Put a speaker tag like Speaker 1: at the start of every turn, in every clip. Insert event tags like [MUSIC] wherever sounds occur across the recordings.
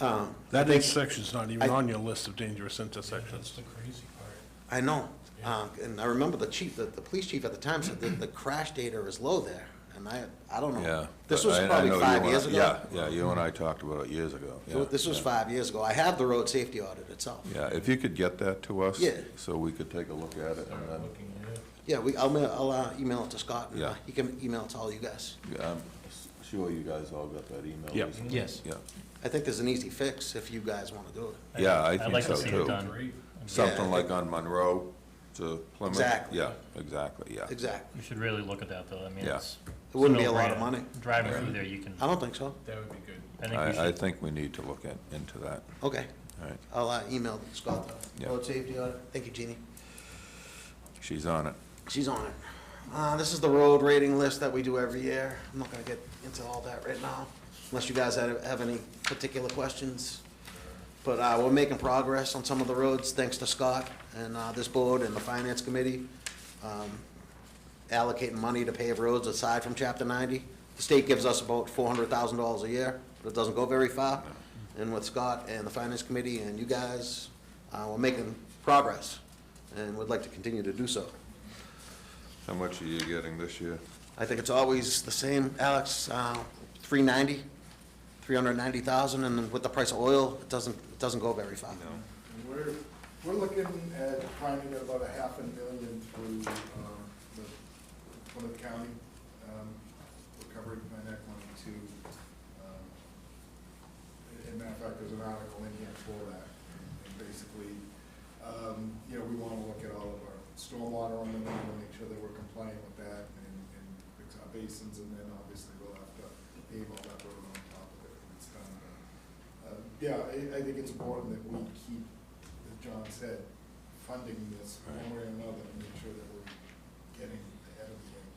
Speaker 1: Um,
Speaker 2: That
Speaker 1: I think-
Speaker 2: intersection's not even
Speaker 1: I-
Speaker 2: on your list of dangerous intersections.
Speaker 3: the crazy part.
Speaker 1: I know, uh, and I remember the chief, the, the police chief at the time said that the crash data is low there, and I, I don't know.
Speaker 4: Yeah.
Speaker 1: This
Speaker 4: but
Speaker 1: was
Speaker 4: I- I
Speaker 1: probably
Speaker 4: know you
Speaker 1: five
Speaker 4: and I-
Speaker 1: years ago.
Speaker 4: Yeah, yeah, you and I talked about it years ago.
Speaker 1: So
Speaker 4: yeah,
Speaker 1: This was
Speaker 4: yeah.
Speaker 1: five years ago. I have the road safety audit itself.
Speaker 4: Yeah, if you could get that to us.
Speaker 1: Yeah.
Speaker 4: So we could take a look at it, and then,
Speaker 3: Looking at it.
Speaker 1: Yeah, we, I'll, ma- I'll uh, email it to Scott, and uh,
Speaker 4: Yeah.
Speaker 1: he can email it to all you guys.
Speaker 4: yeah, I'm s- sure you guys all got that email.
Speaker 2: Yep.
Speaker 4: recently.
Speaker 5: Yes.
Speaker 4: Yeah,
Speaker 1: I think there's an easy fix if you guys want to do it.
Speaker 4: yeah, I
Speaker 5: I'd
Speaker 4: think
Speaker 5: like
Speaker 4: so
Speaker 5: to
Speaker 4: too.
Speaker 5: see it done.
Speaker 3: Great.
Speaker 1: Yeah, I
Speaker 4: Something like on Monroe to Plymouth.
Speaker 1: Exactly.
Speaker 4: Yeah, exactly, yeah.
Speaker 1: Exactly.
Speaker 5: You should really look at that, though. I mean,
Speaker 4: Yeah.
Speaker 5: it's.
Speaker 1: It wouldn't be a lot of
Speaker 5: no-brainer.
Speaker 1: money.
Speaker 5: Driving through there, you can,
Speaker 1: I don't think so.
Speaker 3: That would be good.
Speaker 5: I think we
Speaker 4: I, I
Speaker 5: should,
Speaker 4: think we need to look at, into that,
Speaker 1: Okay,
Speaker 4: all right.
Speaker 1: I'll uh, email Scott the
Speaker 4: Yeah.
Speaker 1: road safety audit. Thank you, Jeannie.
Speaker 4: She's on it.
Speaker 1: She's on it. Uh, this is the road rating list that we do every year. I'm not gonna get into all that right now, unless you guys have, have any particular questions. But, uh, we're making progress on some of the roads, thanks to Scott and, uh, this board and the finance committee. um, Allocating money to pave roads aside from chapter ninety. The state gives us about four hundred thousand dollars a year, but it doesn't go very far. And with Scott and the finance committee and you guys, uh, we're making progress, and would like to continue to do so.
Speaker 4: How much are you getting this year?
Speaker 1: I think it's always the same, Alex, uh, 390, 390,000, and then with the price of oil, it doesn't, it doesn't go very far.
Speaker 6: And We're, we're looking at finding about a half a million through, um, the, Plymouth county, um, recovery plan act one and two. Um, a- And matter of fact, there's an article in here for that, and basically, um, you know, we wanna look at all of our stormwater on the, we wanna make sure that we're compliant with that and, and fix our basins, and then obviously we'll have to pave all that road on top of it when it's done. Uh, Yeah, I, I think it's important that we keep, as John said, funding this one way or another and make sure that we're getting ahead of the game.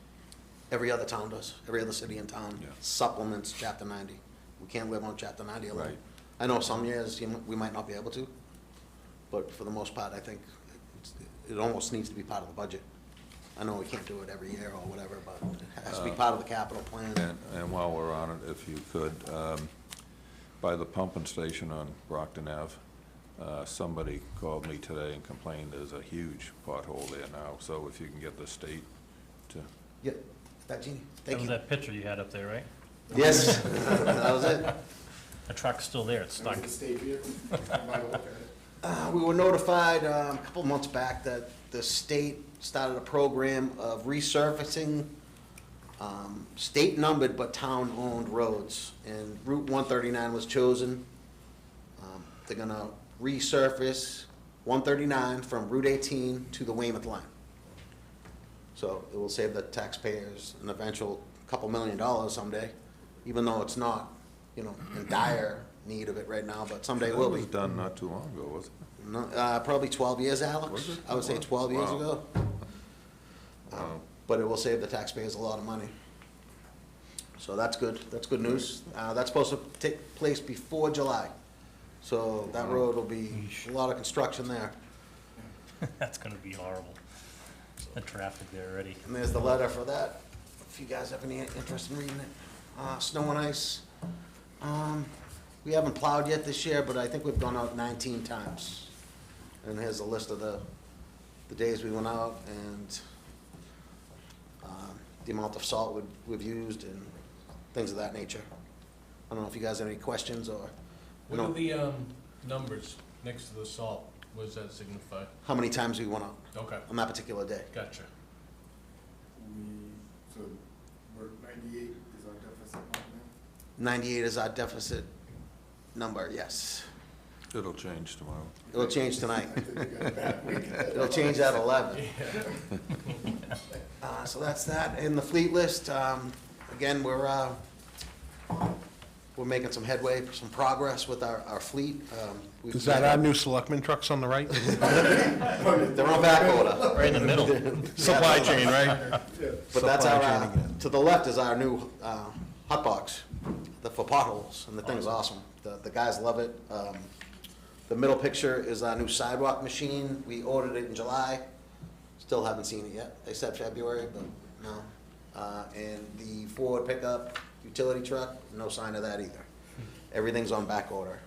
Speaker 1: Every other town does, every other city in town
Speaker 4: Yeah.
Speaker 1: supplements Chapter 90. We can't live on Chapter 90 alone.
Speaker 4: Right.
Speaker 1: I know some years, you m- we might not be able to, but for the most part, I think it's- it almost needs to be part of the budget. I know we can't do it every year or whatever, but it has to be
Speaker 4: Uh,
Speaker 1: part of the capital plan.
Speaker 4: And, and while we're on it, if you could, um, by the pumping station on Brockton Ave, uh, somebody called me today and complained there's a huge pothole there now, so if you can get the state to,
Speaker 1: Yeah, that, Jeannie,
Speaker 5: that
Speaker 1: thank
Speaker 5: was
Speaker 1: you.
Speaker 5: that picture you had up there, right?
Speaker 1: Yes, [LAUGHS] that was it.
Speaker 5: The truck's still there, it's stuck. [LAUGHS]
Speaker 6: That was the state [LAUGHS] vehicle, by the look at it.
Speaker 1: Uh, We were notified um, a couple months back that the state started a program of resurfacing um, state-numbered but town-owned roads, and Route 139 was chosen. Um, They're gonna resurface 139 from Route 18 to the Weymouth line. So it will save the taxpayers an eventual couple million dollars someday, even though it's not, you know, in dire need of it right now, but someday it
Speaker 4: that
Speaker 1: will be.
Speaker 4: was done not too long ago, wasn't it?
Speaker 1: No, uh, probably twelve years,
Speaker 4: Was
Speaker 1: Alex.
Speaker 4: it?
Speaker 1: I would say twelve years
Speaker 4: Wow.
Speaker 1: ago. Um, But it will save the taxpayers a lot of money. So that's good, that's good news. Uh, that's supposed to take place before July. So that road will be, a lot of construction there.
Speaker 5: That's gonna be horrible. The traffic there already.
Speaker 1: And there's the letter for that, if you guys have any interest in reading it. Uh, snow and ice. Um, we haven't plowed yet this year, but I think we've gone out nineteen times. And here's a list of the, the days we went out and, um, the amount of salt we've, we've used and things of that nature. I don't know if you guys have any questions or, you
Speaker 3: What are
Speaker 1: know,
Speaker 3: the, um, numbers next to the salt? What does that signify?
Speaker 1: how many times we went out
Speaker 3: Okay,
Speaker 1: on that particular day.
Speaker 3: gotcha.
Speaker 6: We, so, we're ninety-eight is our deficit right now.
Speaker 1: Ninety-eight is our deficit number, yes.
Speaker 4: It'll change tomorrow.
Speaker 1: It'll change tonight.
Speaker 6: I think we got a bad week.
Speaker 1: It'll change at eleven. [LAUGHS] Uh, so that's that. In the fleet list, um, again, we're, uh, we're making some headway, some progress with our, our fleet. Um, we've-
Speaker 2: Is that our new selectman trucks on the
Speaker 1: [LAUGHS]
Speaker 2: right?
Speaker 1: They're on back order.
Speaker 5: Right in the middle.
Speaker 2: Supply chain, right?
Speaker 1: But that's our,
Speaker 2: Supply chain
Speaker 1: uh, to the left is our new, uh, hot box, the, for potholes, and the thing's awesome. The, the guys love it. Um, the middle picture is our new sidewalk machine. We ordered it in July. Still haven't seen it yet. They said February, but no. Uh, and
Speaker 2: [LAUGHS]
Speaker 1: the Ford pickup utility truck, no sign of that either. Everything's on back order.